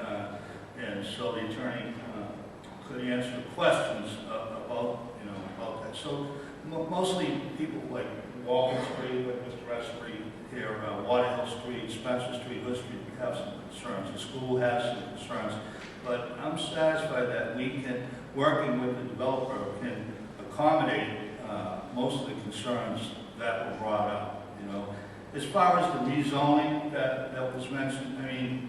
uh, so the attorney uh, could answer questions a- about, you know, about that. So mo- mostly people like Walton Street, like Mr. Rushbury here, uh, Waterhill Street, Spencer Street, Hood Street, we have some concerns. The school has some concerns. But I'm satisfied that we can, working with the developer, can accommodate uh, most of the concerns that were brought up, you know. As far as the rezoning that, that was mentioned, I mean,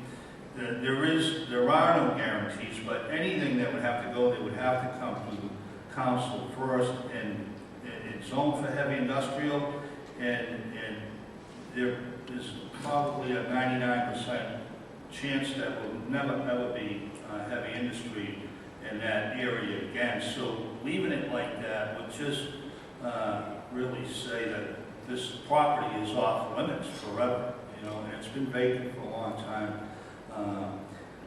there there is, there are no guarantees, but anything that would have to go, they would have to come to council first, and it- it's zoned for heavy industrial, and, and there is probably a ninety-nine percent chance that will never, never be uh, heavy industry in that area again, so leaving it like that would just uh, really say that this property is off limits forever, you know, and it's been vacant for a long time. Um,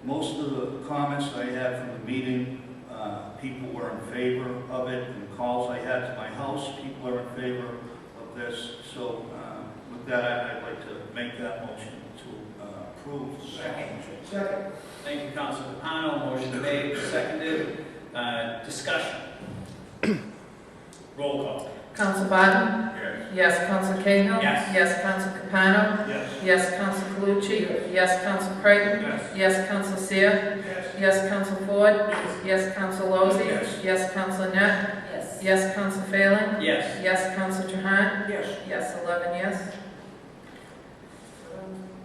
Most of the comments I had from the meeting, uh, people were in favor of it, and calls I had to my house, people are in favor of this. So uh, with that, I- I'd like to make that motion to uh, approve. Second. Second. Thank you, Councilor Capano. Motion made, seconded. Uh, Discussion. Roll call. Council Biden? Yes. Yes. Council Cahill? Yes. Yes. Council Capano? Yes. Yes. Council Calucci? Yes. Council Creighton? Yes. Yes. Council Seer? Yes. Yes. Council Ford? Yes. Council Lozey? Yes. Yes. Council Net? Yes. Yes. Council Phelan? Yes. Yes. Council Trahan? Yes. Yes. Eleven yes.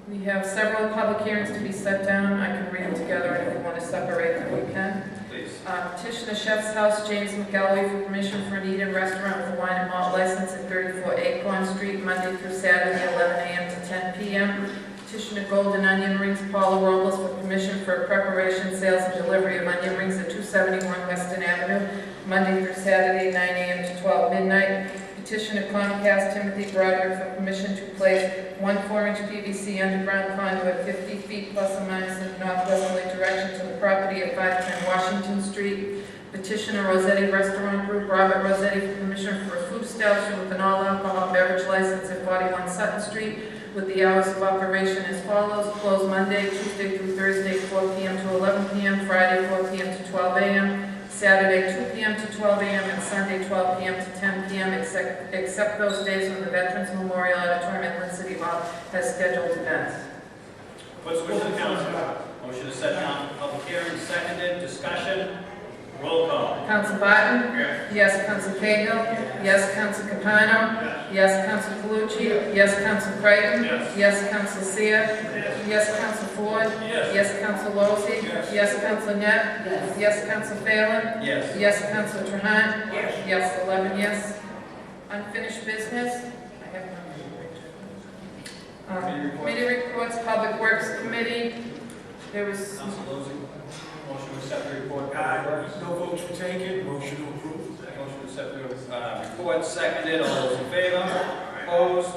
We have several public hearings to be set down. I can read them together if we want to separate them, we can. Please. Uh, Petition of Chef's House, James McGalloway, for permission for an eat-in restaurant with wine and malt license at 34 Acorn Street, Monday through Saturday, 11 a.m. to 10 p.m. Petition of Golden Onion Rings, Paula Robles, for permission for preparation, sales, and delivery of onion rings at 271 Weston Avenue, Monday through Saturday, 9 a.m. to 12 midnight. Petition of Comcast, Timothy Broderick, for permission to place one 4-inch PVC underground conduit 50 feet plus or minus in northwesterly direction to the property at 510 Washington Street. Petitioner Rossetti Restaurant Group, Robert Rossetti, for permission for a food establishment with an all-alcohol beverage license at 41 Sutton Street with the hours of operation as follows, closed Monday, Tuesday through Thursday, 4 p.m. to 11 p.m., Friday, 4 p.m. to 12 a.m., Saturday, 2 p.m. to 12 a.m., and Sunday, 12 p.m. to 10 p.m., except except those days when the Veterans Memorial Auditorium at Lynn City Hall has scheduled events. What's the wish of the council? Motion to set down for public hearing, seconded. Discussion. Roll call. Council Biden? Yes. Yes. Council Cahill? Yes. Council Capano? Yes. Yes. Council Calucci? Yes. Council Creighton? Yes. Yes. Council Seer? Yes. Council Ford? Yes. Yes. Council Lozey? Yes. Yes. Council Net? Yes. Yes. Council Phelan? Yes. Yes, Council Trahan? Yes. Yes, 11 yes. Unfinished business? I have none. Committee Um, reports. Committee reports, Public Works Committee, there was, Council Lozey. Motion to accept the report. Uh, No votes were taken, motion to approve. Motion to accept the uh, report, seconded. All those in favor? Opposed?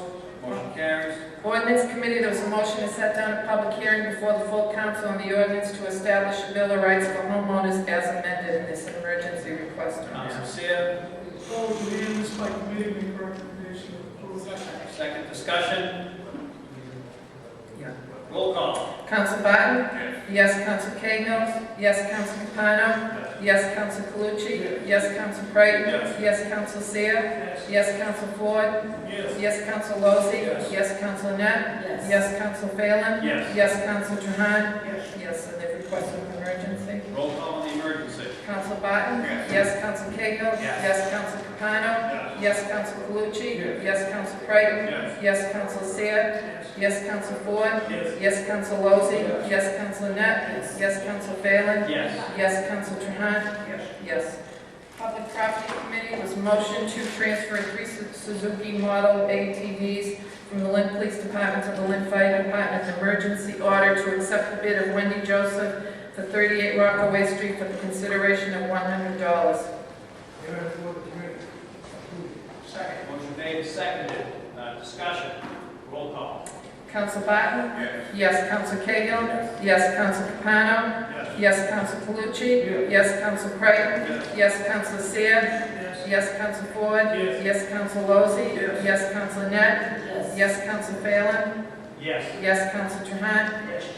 Motion carries. ordinance committee, there was a motion to set down a public hearing before the full council on the ordinance to establish a bill of rights for homeowners as amended in this emergency request. Council Seer, Vote to end this by committee, make recommendation approved. second discussion. Yeah. Roll call. Council Biden? Yes. Council Cahill? Yes. Council Capano? Yes. Council Calucci? Yes. Council Creighton? Yes. Yes. Council Seer? Yes, Council Ford. Yes. Yes, Council Lozey. Yes. Council Net. Yes. Yes, Council Phelan. Yes. Yes, Council Trahan. Yes, and they requested an emergency. Roll call on the emergency. Council Barton. Yes. Council Cahill. Yes. Council Capano. Yes. Yes, Council Calucci. Yes. Council Creighton. Yes. Yes, Council Seer. Yes, Council Ford. Yes. Yes, Council Lozey. Yes, Council Net. Yes, Council Phelan. Yes. Yes, Council Trahan? Yes. Yes. Public Property Committee was motion to transfer three Su- Suzuki Model ATVs from the Lynn Police Department to the Lynn Fire Department's emergency order to accept the bid of Wendy Joseph for 38 Rockaway Street for the consideration of $100. And I forward the committee. Approve. Second. Motion made, seconded. Uh, Discussion. Roll call. Council Barton? Yes. Yes, Council Cahill? Yes, Council Capano? Yes. Yes, Council Calucci? Yes, Council Creighton? Yes, Council Seer? Yes, Council Ford? Yes. Yes, Council Lozey? Yes. Yes, Council Net? Yes. Yes, Council Phelan? Yes. Yes, Council Trahan?